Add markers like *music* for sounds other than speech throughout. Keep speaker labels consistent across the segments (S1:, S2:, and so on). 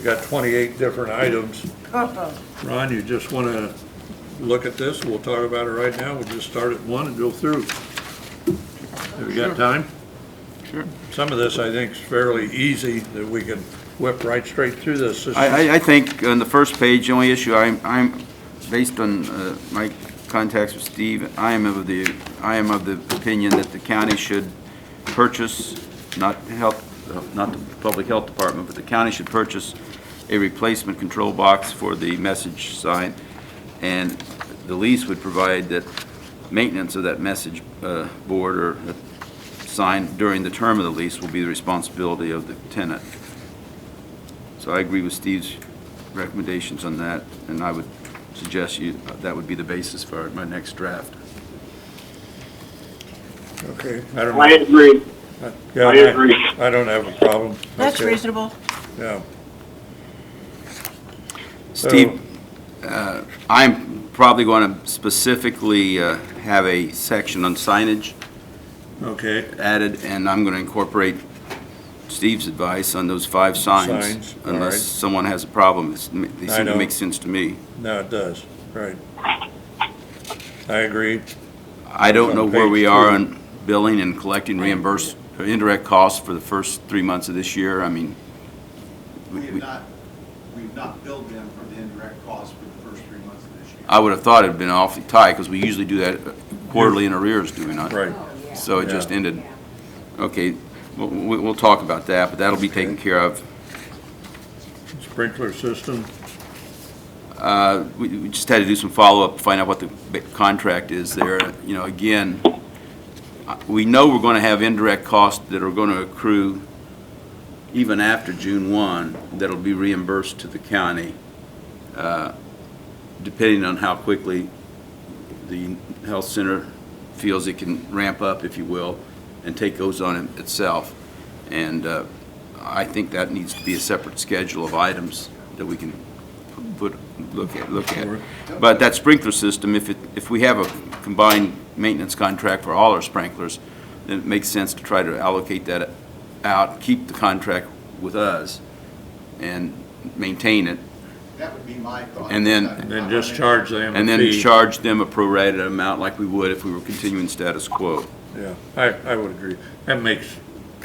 S1: We got 28 different items. Ron, you just want to look at this? We'll talk about it right now. We'll just start at one and go through. Have we got time?
S2: Sure.
S1: Some of this, I think, is fairly easy, that we can whip right straight through this. This is-
S2: I, I, I think on the first page, the only issue I'm, I'm, based on uh, my contacts with Steve, I am of the, I am of the opinion that the county should purchase, not the health, not the public health department, but the county should purchase a replacement control box for the message sign. And the lease would provide that maintenance of that message uh, board or sign during the term of the lease will be the responsibility of the tenant. So I agree with Steve's recommendations on that, and I would suggest you, that would be the basis for my next draft.
S1: Okay, I don't know.
S3: I agree.
S1: Yeah,
S3: I agree.
S1: I don't have a problem.
S4: That's
S1: Okay,
S4: reasonable.
S1: Yeah.
S2: Steve, uh, I'm probably going to specifically uh, have a section on signage
S1: Okay,
S2: added, and I'm going to incorporate Steve's advice on those five
S1: Signs,
S2: signs.
S1: all right.
S2: Unless someone has a problem, It's- they
S1: I
S2: seem
S1: know.
S2: to make sense to me.
S1: now it does, right. I agree.
S2: I don't know where we
S1: Page
S2: are
S1: two.
S2: on billing and collecting reimbursed, or indirect costs for the first three months of this year. I mean,
S5: We have not, we've not billed them for the indirect costs for the first three months of this year.
S2: I would have thought it'd been awfully tight, because we usually do that quarterly in arrears, do we not?
S1: Right.
S2: So it just
S1: Yeah.
S2: ended. Okay, we'll, we'll we'll talk about that, but that'll be taken care of.
S1: Sprinkler system,
S2: Uh, We we just had to do some follow-up, find out what the ba- contract is there. You know, again, uh, we know we're going to have indirect costs that are going to accrue even after June 1 that'll be reimbursed to the county, uh, depending on how quickly the health center feels it can ramp up, if you will, and take those on it- itself. And uh, I think that needs to be a separate schedule of items that we can put, look at, look at. But that sprinkler system, if it, if we have a combined maintenance contract for all our sprinklers, then it makes sense to try to allocate that out, keep the contract with us, and maintain it,
S5: That would be my thought.
S2: And then-
S1: and then just charge them a
S2: and then
S1: fee.
S2: charge them a prorated amount like we would if we were continuing status quo.
S1: Yeah, I, I would agree. That makes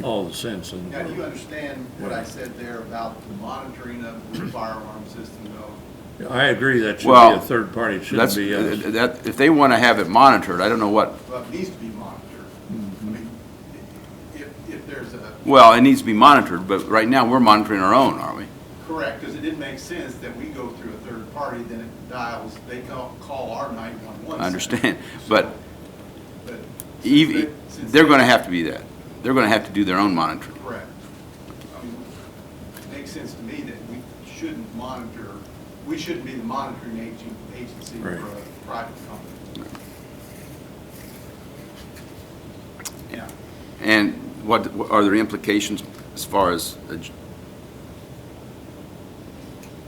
S1: all the sense in the
S5: Now, do you
S1: world.
S5: understand what I said there about the monitoring of
S2: *clears throat*
S5: the fire alarm system though?
S1: I agree, that should be
S2: Well,
S1: a third party, it shouldn't
S2: That's, uh,
S1: be uh, us.
S2: that, if they want to have it monitored, I don't know what,
S5: Well, it needs to be monitored. I mean, if, if there's a,
S2: Mm-hmm. well, it needs to be monitored, but right now, we're monitoring our own, aren't we?
S5: correct, because it didn't make sense that we go through a third party, then it dials, they call, call our nine-one-one.
S2: I understand, but
S5: But,
S2: ev-
S5: Since
S2: they're
S5: they-
S2: going to have to be that. They're going to have to do their own monitoring.
S5: correct. I mean, it makes sense to me that we shouldn't monitor, we shouldn't be the monitoring agent, agency for a
S1: Right.
S5: private company. Yeah.
S2: And what, what are there implications as far as, a j-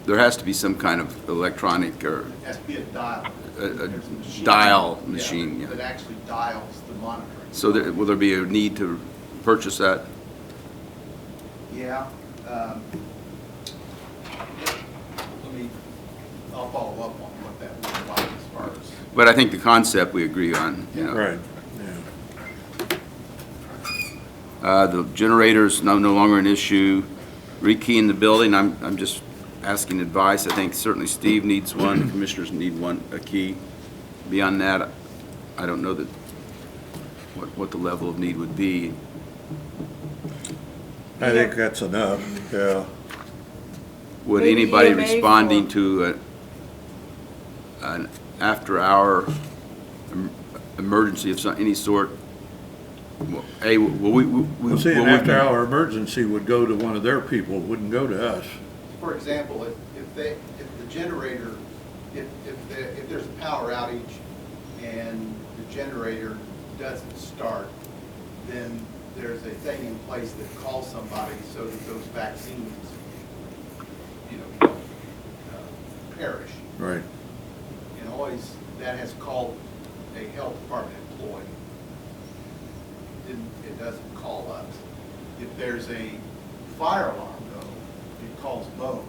S2: there has to be some kind of electronic or
S5: It has to be a dial.
S2: A- a
S5: There's machine-
S2: dial machine, yeah.
S5: That actually dials the monitoring.
S2: So there, will there be a need to purchase that?
S5: Yeah. um, Let me, I'll follow up on what that would like as far as.
S2: But I think the concept we agree on, you know.
S1: Right, yeah.
S2: Uh, the generator's no, no longer an issue. Rekeying the building, I'm, I'm just asking advice. I think certainly Steve needs one, the commissioners need one, a key. Beyond that, I don't know that, what, what the level of need would be.
S1: I think that's enough, yeah.
S2: Would
S4: Maybe
S2: anybody
S4: EMA
S2: responding
S4: for-
S2: to a, an after-hour em- emergency of some, any sort, w- A, will we, will we?
S1: Well, See,
S2: will
S1: an
S2: we-
S1: after-hour emergency would go to one of their people, wouldn't go to us.
S5: For example, if, if they, if the generator, if, if, the- if there's a power outage and the generator doesn't start, then there's a thing in place that calls somebody so that those vaccines, you know, uh, perish.
S1: Right.
S5: And always, that has called a health department employee. Didn't, it doesn't call us. If there's a fire alarm though, it calls both.